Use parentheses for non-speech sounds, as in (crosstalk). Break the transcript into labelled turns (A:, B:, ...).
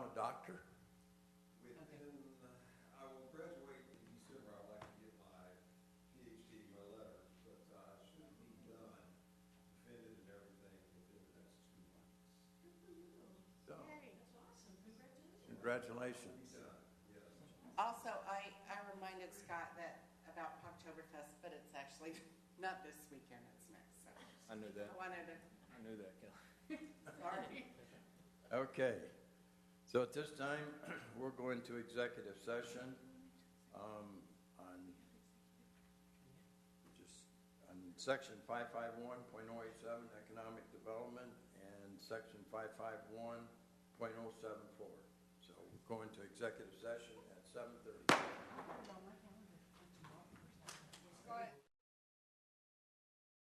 A: Congratulations.
B: Also, I, I reminded Scott that, about Poptoberfest, but it's actually (laughs) not this weekend, it's next, so.
C: I knew
B: I
C: that,
B: wanted to,
C: I knew that, Kelly.
B: (laughs) sorry.
A: Okay. So at this time, (clears throat) we're going to executive session um, on just on section 551.087 economic development and section 551.074. So we're going to executive session at 7:30.